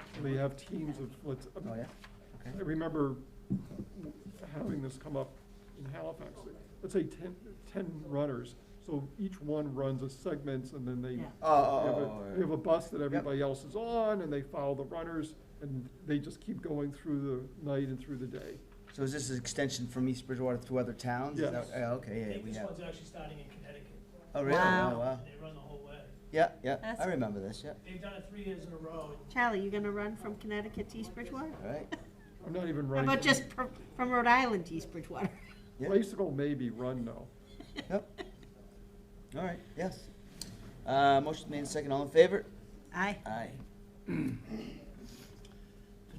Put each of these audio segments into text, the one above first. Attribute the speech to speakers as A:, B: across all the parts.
A: actually have teams of, let's,
B: Oh, yeah?
A: I remember having this come up in Halifax, let's say ten, ten runners, so each one runs a segment, and then they.
C: Yeah.
B: Oh, oh,
A: you have a-
B: oh, oh,
A: You have a
B: yeah.
A: bus that everybody else is on, and they follow the runners, and they just keep going through the night and through the day.
B: So is this an extension from East Bridgewater to other towns? Is
A: Yes.
B: that- yeah, Okay,
D: I
B: yeah,
D: think
B: we
D: this
B: have.
D: one's actually starting in Connecticut.
B: Oh, really?
C: Wow.
B: Oh, wow.
D: They run the whole way.
B: Yeah, yeah, I
C: That's-
B: remember this, yeah.
D: They've done it three years in a row. and
C: Charlie, you gonna run from Connecticut to East Bridgewater?
B: All right.
A: I'm not even
C: How
A: running.
C: about just from, from Rhode Island to East Bridgewater?
B: Yeah.
A: Bicycle maybe, run no.
B: Yep. All right, yes. Uh, motion made and second, all in favor?
C: Aye.
B: Aye.
E: Mr.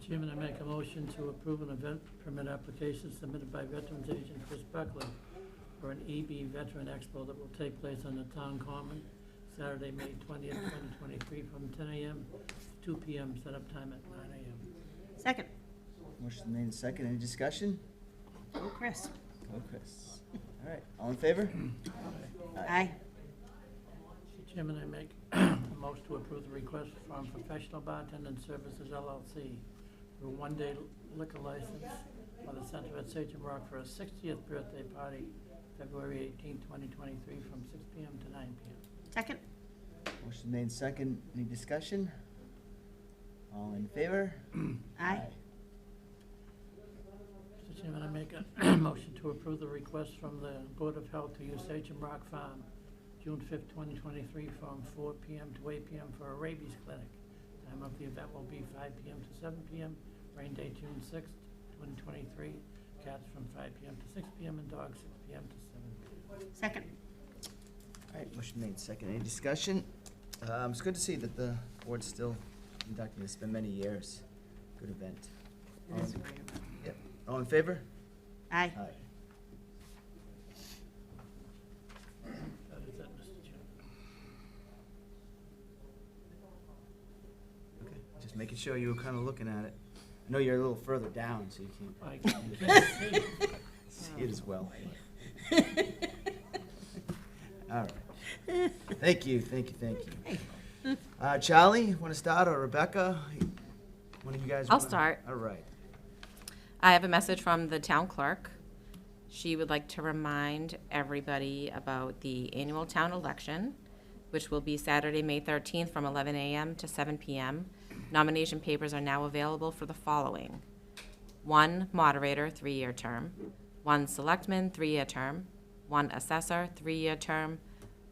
E: Chairman, I make a motion to approve an event permit application submitted by Veterans Agent Chris Buckley for an EB Veteran Expo that will take place on the town common Saturday, May twentieth, twenty twenty-three, from ten AM to two PM, setup time at nine AM.
C: Second,
B: Motion made and second, any discussion?
C: go Oh, Chris.
B: Go Chris. All right, all in favor?
C: Aye.
E: Mr. Chairman, I make a motion to approve the request from Professional Bartending Services LLC for a one-day liquor license for the Center at Sage and Rock for a sixtieth birthday party, February eighteenth, twenty twenty-three, from six PM to nine PM.
C: Second,
B: Motion made and second, any discussion? All in favor?
C: aye.
E: Mr. Chairman, I make a motion to approve the request from the Board of Health to use Sage and Rock Farm, June fifth, twenty twenty-three, from four PM to eight PM for a rabies clinic. Time of the event will be five PM to seven PM, rain day, June sixth, twenty twenty-three, cats from five PM to six PM and dogs six PM to seven PM.
C: Second,
B: All right, motion made and second, any discussion? Um, it's good to see that the board's still conducting this, it's been many years. Good event.
C: it is a great event.
B: Yep, all in favor?
C: Aye.
B: Aye.
E: That is it, Mr. Chairman.
B: Okay, just making sure you were kinda looking at it. I know you're a little further down, so you can't
E: I can't see.
B: see it as well. All right. Thank you, thank you, thank you. Uh, Charlie, wanna start, or Rebecca? One of you guys?
F: I'll
B: wanna-
F: start.
B: All right.
F: I have a message from the town clerk. She would like to remind everybody about the annual town election, which will be Saturday, May 13th, from 11 a.m. to 7 p.m. Nomination papers are now available for the following: one moderator, three-year term, one selectman, three-year term, one assessor, three-year term,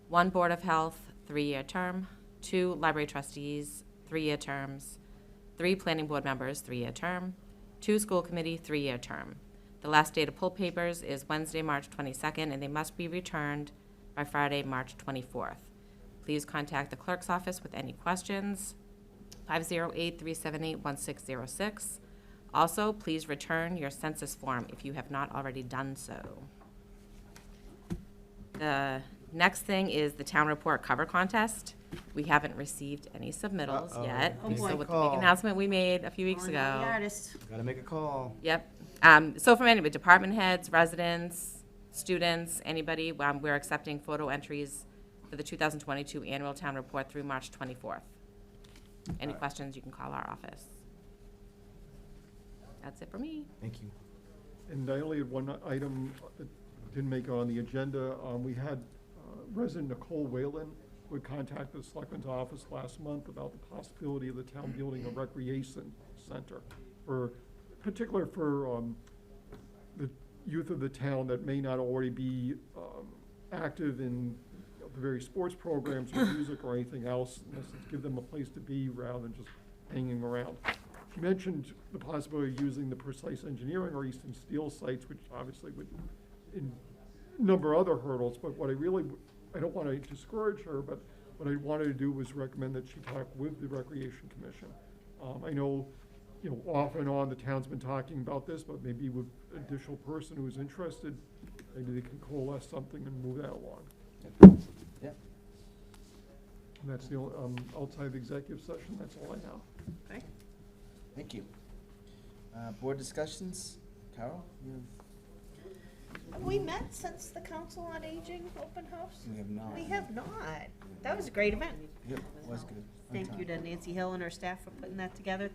F: one board of health, three-year term, two library trustees, three-year terms, three planning board members, three-year term, two school committee, three-year term. The last day to pull papers is Wednesday, March 22nd, and they must be returned by Friday, March 24th. Please contact the clerk's office with any questions, 508-378-1606. Also, please return your census form if you have not already done so. The next thing is the town report cover contest. We haven't received any submittals
B: Uh-oh.
F: yet.
C: Oh, boy. Oh,
F: So with the big announcement we made a few weeks
C: On
F: ago.
C: The artist.
B: Gotta make a call.
F: Yep. Um, so from anybody, department heads, residents, students, anybody, um, we're accepting photo entries for the two thousand twenty-two annual town report through March twenty-fourth. Any
B: Alright.
F: questions, you can call our office. That's it for me.
B: Thank you.
A: And I only had one item that didn't make it on the agenda. Um, We had uh, resident Nicole Whalen who had contacted the Selectman's office last month about the possibility of the town building a recreation center for, particular for um, the youth of the town that may not already be um, active in you know, the various sports programs or music or anything else, in essence, give them a place to be rather than just hanging around. She mentioned the possibility of using the Precise Engineering or Eastern Steel sites, which obviously would, in number of other hurdles, but what I really, w- I don't want to discourage her, but what I wanted to do was recommend that she talk with the Recreation Commission. Um, I know, you know, off and on, the town's been talking about this, but maybe with additional person who's interested, maybe they can coalesce something and move that along.
B: Yep.
A: And that's the, only- um, outside of executive session, that's all I have.
C: Great.
B: Thank you. Uh, board discussions, Carol, you have,
C: Have we met since the Council on Aging open house?
B: we have not.
C: We have not. That was a great event.
B: Yep, was good. Fun
C: Thank
B: time.
C: you to Nancy Hill and her staff for putting that together.